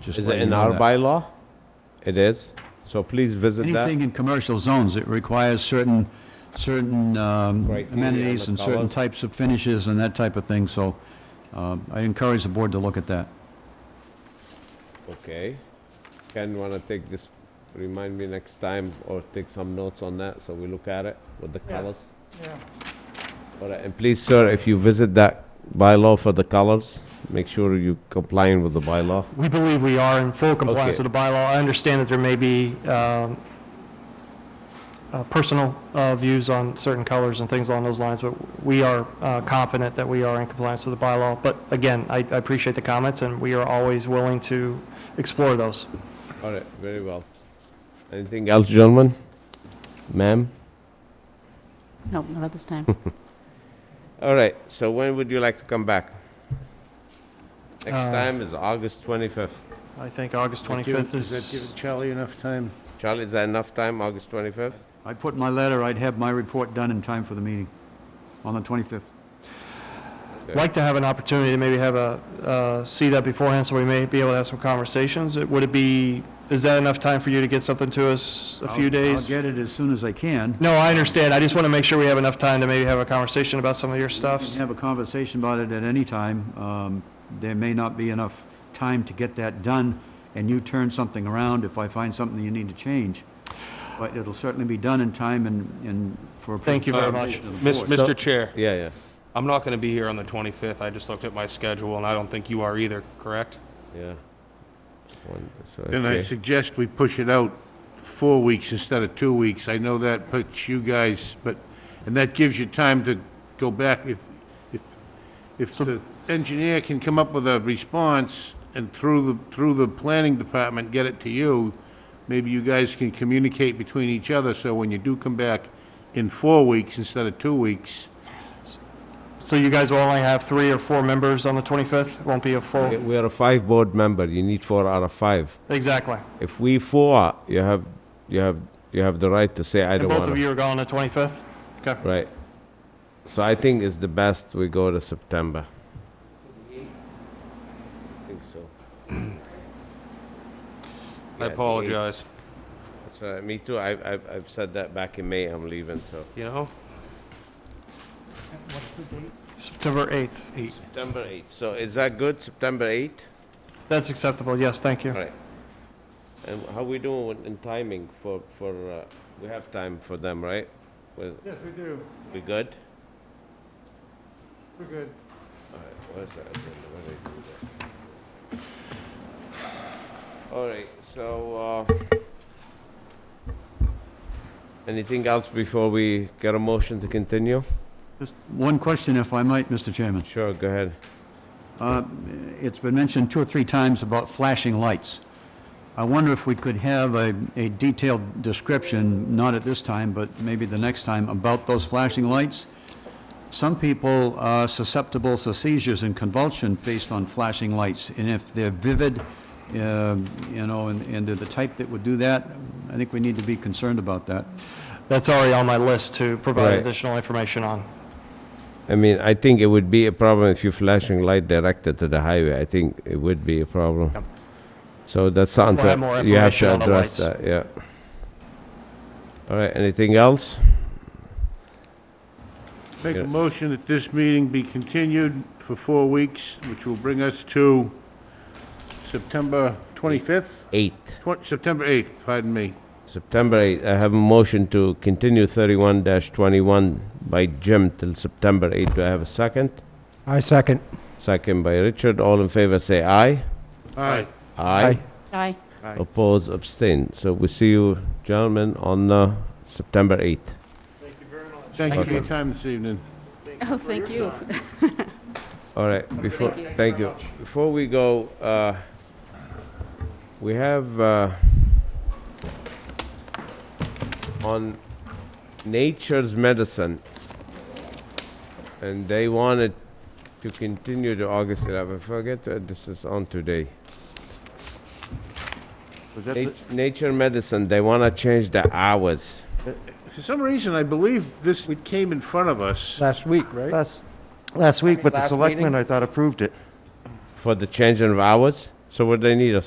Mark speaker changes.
Speaker 1: Just
Speaker 2: Is it
Speaker 1: letting you
Speaker 2: in
Speaker 1: know
Speaker 2: our
Speaker 1: that.
Speaker 2: bylaw? It is? So please visit that.
Speaker 1: Anything in commercial zones, it requires certain, certain um,
Speaker 2: Criteria and
Speaker 1: amenities
Speaker 2: the
Speaker 1: and certain
Speaker 2: colors.
Speaker 1: types of finishes and that type of thing, so um, I encourage the board to look at that.
Speaker 2: Okay. Ken, wanna take this, remind me next time or take some notes on that so we look at it with the colors?
Speaker 3: Yeah.
Speaker 2: All right, and please, sir, if you visit that bylaw for the colors, make sure you complying with the bylaw.
Speaker 3: We believe we are in full compliance
Speaker 2: Okay.
Speaker 3: with the bylaw. I understand that there may be um, uh, personal uh, views on certain colors and things along those lines, but we are uh, confident that we are in compliance with the bylaw. But again, I I appreciate the comments, and we are always willing to explore those.
Speaker 2: All right, very well. Anything else, gentlemen? Ma'am?
Speaker 4: No, not at this time.
Speaker 2: All right, so when would you like to come back? Next
Speaker 3: Uh,
Speaker 2: time is August 25th.
Speaker 3: I think August 25th
Speaker 5: Does that
Speaker 3: is,
Speaker 5: give Charlie enough time?
Speaker 2: Charlie, is that enough time, August 25th?
Speaker 1: I put in my letter, I'd have my report done in time for the meeting on the 25th.
Speaker 3: like to have an opportunity to maybe have a, uh, see that beforehand, so we may be able to have some conversations. Would it be, is that enough time for you to get something to us a few
Speaker 1: I'll-
Speaker 3: days?
Speaker 1: I'll get it as soon as I can.
Speaker 3: No, I understand. I just want to make sure we have enough time to maybe have a conversation about some of your
Speaker 1: We
Speaker 3: stuff.
Speaker 1: can have a conversation about it at any time. Um, There may not be enough time to get that done, and you turn something around if I find something you need to change. But it'll certainly be done in time and, and for.
Speaker 3: Thank you very much.
Speaker 6: Miss-
Speaker 2: So-
Speaker 6: Mr. Chair,
Speaker 2: Yeah, yeah,
Speaker 6: I'm not going to be here on the 25th. I just looked at my schedule, and I don't think you are either, correct?
Speaker 2: yeah. One- so,
Speaker 5: Then I
Speaker 2: okay.
Speaker 5: suggest we push it out four weeks instead of two weeks. I know that puts you guys, but, and that gives you time to go back if, if, if the engineer can come up with a response and through the, through the planning department, get it to you, maybe you guys can communicate between each other, so when you do come back in four weeks instead of two weeks,
Speaker 3: So you guys will only have three or four members on the 25th? Won't be a
Speaker 2: We-
Speaker 3: full?
Speaker 2: We are a five board member, you need four out of five.
Speaker 3: Exactly.
Speaker 2: If we four, you have, you have, you have the right to say, I
Speaker 3: And
Speaker 2: don't
Speaker 3: both of
Speaker 2: want to.
Speaker 3: you are gone on the 25th? Okay.
Speaker 2: Right. So I think it's the best we go to September. I think so.
Speaker 6: I apologize.
Speaker 2: So, me too, I, I've, I've said that back in May, I'm leaving, so.
Speaker 6: You know?
Speaker 3: September 8th.
Speaker 2: September 8th, so is that good, September 8th?
Speaker 3: That's acceptable. Yes, thank you.
Speaker 2: All right. And how we doing with- in timing for, for, uh, we have time for them, right? Yes, we do. We good? We're good. All right, where's that agenda? Where did I do that? All right, so, uh, anything else before we get a motion to continue?
Speaker 1: Just one question, if I might, Mr. Chairman.
Speaker 2: Sure, go ahead.
Speaker 1: Uh, It's been mentioned two or three times about flashing lights. I wonder if we could have a a detailed description, not at this time, but maybe the next time, about those flashing lights? Some people are susceptible to seizures and convulsion based on flashing lights, and if they're vivid, uh, you know, and and they're the type that would do that, I think we need to be concerned about that.
Speaker 3: That's already on my list to provide
Speaker 2: Right.
Speaker 3: additional information on.
Speaker 2: I mean, I think it would be a problem if you're flashing light directed to the highway. I think it would be a problem.
Speaker 3: Yep.
Speaker 2: So that's something
Speaker 3: have more
Speaker 2: you have
Speaker 3: information
Speaker 2: to
Speaker 3: on the
Speaker 2: address
Speaker 3: lights.
Speaker 2: that, yeah. All right, anything else?
Speaker 5: Make
Speaker 2: Yeah.
Speaker 5: a motion that this meeting be continued for four weeks, which will bring us to September 25th,
Speaker 2: Eight.
Speaker 5: Twen- September 8th, pardon me.
Speaker 2: September 8th, I have a motion to continue 31-21 by Jim till September 8th. Do I have a second?
Speaker 7: I second.
Speaker 2: Second by Richard. All in favor, say aye.
Speaker 5: Aye.
Speaker 2: Aye.
Speaker 4: Aye.
Speaker 2: Oppose, abstain. So we see you, gentlemen, on uh, September 8th.
Speaker 5: Thank you for your time this evening.
Speaker 4: Oh, thank you.
Speaker 2: All right, before, thank you. Before we go, uh, we have uh, on Nature's Medicine, and they wanted to continue to August 11th. Forget that this is on today.
Speaker 8: Was that,
Speaker 2: Nat- Nature Medicine, they want to change the hours.
Speaker 5: For some reason, I believe this came in front of us.
Speaker 7: Last week,
Speaker 8: the-
Speaker 7: right?
Speaker 8: last, last week, but the
Speaker 7: Last
Speaker 8: selectmen,
Speaker 7: meeting?
Speaker 8: I thought, approved it.
Speaker 2: For the changing of hours? So what they need us